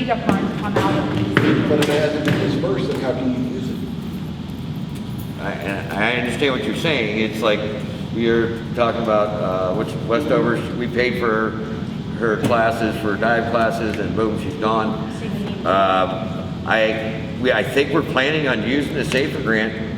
the funds come out of these. But if it hasn't been dispersed, then how can you use it? I, and I understand what you're saying, it's like, we are talking about, uh, which Westover, we paid for her classes, for dive classes, and boom, she's gone. Um, I, we, I think we're planning on using the SAFER grant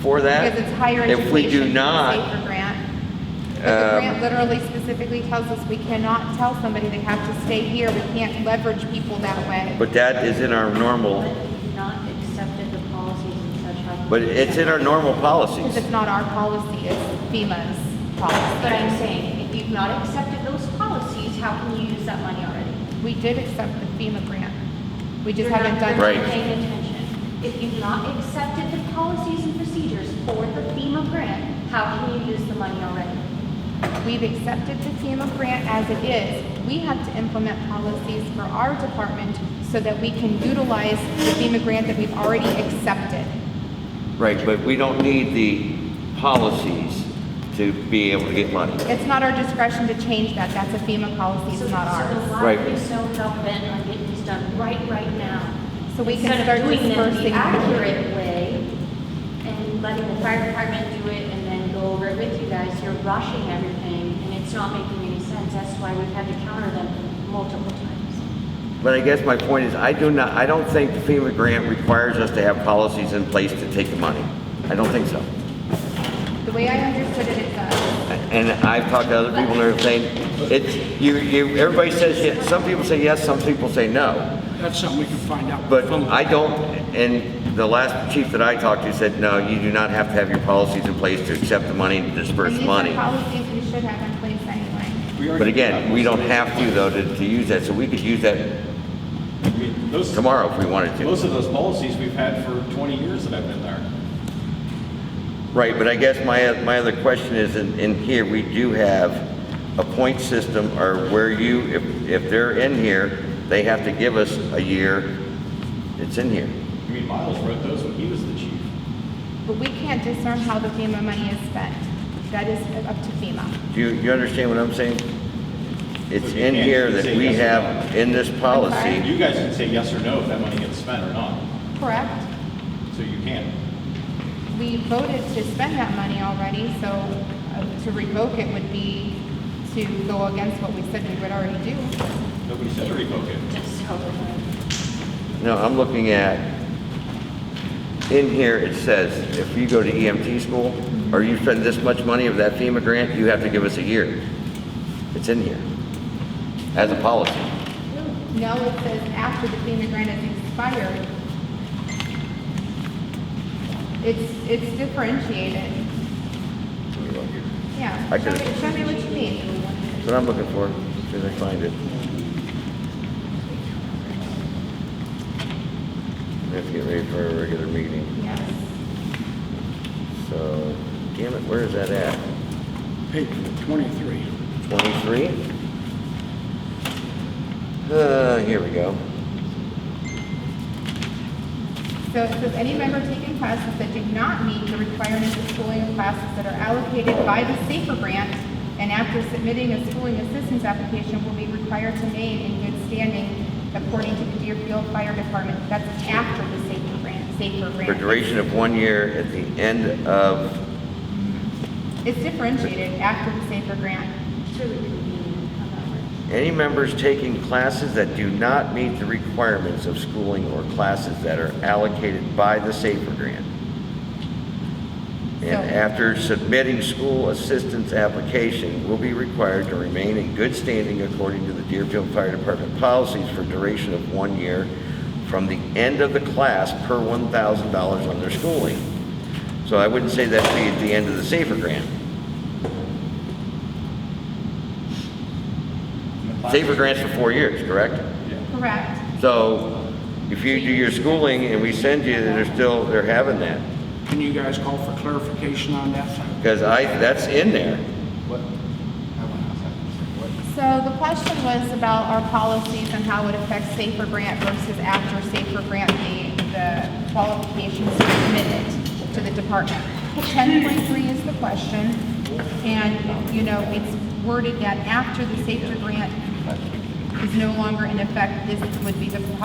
for that. Because it's higher education. If we do it's a not, Safer grant. But the Um, grant literally specifically tells us we cannot tell somebody they have to stay here. We can't leverage people that way. but that is in our normal, But we've not accepted the policies and such. but it's in our normal Because policies. it's not our policy, it's FEMA's policy. But I'm saying, if you've not accepted those policies, how can you use that money already? We did accept the FEMA grant. We just You're not- haven't done. You're Right. not paying attention. If you've not accepted the policies and procedures for the FEMA grant, how can you use the money already? We've accepted the FEMA grant as it is. We have to implement policies for our department so that we can utilize the FEMA grant that we've already accepted. Right, but we don't need the policies to be able to get money. It's not our discretion to change that. That's a FEMA policy, So- it's not So ours. why Right. are you so hell bent on getting these done right, right now? So we can Instead start of doing them the dispersing. accurate way and letting the fire department do it and then go over it with you guys, you're rushing everything and it's not making any sense. That's why we've had to counter them multiple times. But I guess my point is, I do not, I don't think the FEMA grant requires us to have policies in place to take the money. I don't think so. The way I understood it, it does. And I've talked to other people that are saying, it's, you, you, everybody says, yes. some people say yes, some people say no. That's something we can find out. But from- I don't, and the last chief that I talked to said, no, you do not have to have your policies in place to accept the money and disperse money. And these are policies we should have in place anyway. We already But again, have we those. don't have to though to, to use that, so we could use that I mean, Those, tomorrow if we wanted to. most of those policies we've had for 20 years that I've been there. Right, but I guess my, my other question is, in, in here, we do have a point system or where you, if, if they're in here, they have to give us a year, it's in here. I mean, Miles wrote those when he was the chief. But we can't discern how the FEMA money is spent. That is up to FEMA. Do you, you understand what I'm saying? It's But you in can't here that say we yes or have, in this sorry? policy, You guys can say yes or no if that money gets spent or not, Correct? so you can. We voted to spend that money already, so uh, to revoke it would be to go against what we said we would already do. Nobody said to revoke it. Just help them. no, I'm looking at, in here, it says, if you go to EMT school, or you spend this much money of that FEMA grant, you have to give us a year. It's in here, as a policy. No, it says after the FEMA grant has expired. It's, it's differentiated. Yeah. I Show could've- me, show me what you mean. That's what I'm looking for, as I find it. We have to get ready for a regular meeting, Yes. so, damn it, where is that at? Page 23. Twenty-three? Uh, here we go. So it says any member taking classes that do not meet the requirements of schooling classes that are allocated by the SAFER grant and after submitting a schooling assistance application will be required to remain in good standing according to the Deerfield Fire Department. That's after the SAFER grant, SAFER For grant. duration of one year at the end of, It's differentiated after the SAFER grant. It's really convenient how that works. any members taking classes that do not meet the requirements of schooling or classes that are allocated by the SAFER grant. And So- after submitting school assistance application, will be required to remain in good standing according to the Deerfield Fire Department policies for duration of one year from the end of the class per one thousand dollars on their schooling. So I wouldn't say that'd be at the end of the SAFER grant. SAFER grants for four years, correct? Correct. So if you do your schooling and we send you, they're still, they're having that. Can you guys call for clarification on that? Because I, that's in there. So the question was about our policies and how it affects safer grant versus after safer grant, the, the qualifications submitted to the department. Ten point three is the question, and, you know, it's worded that after the safer grant is no longer in effect, this would be the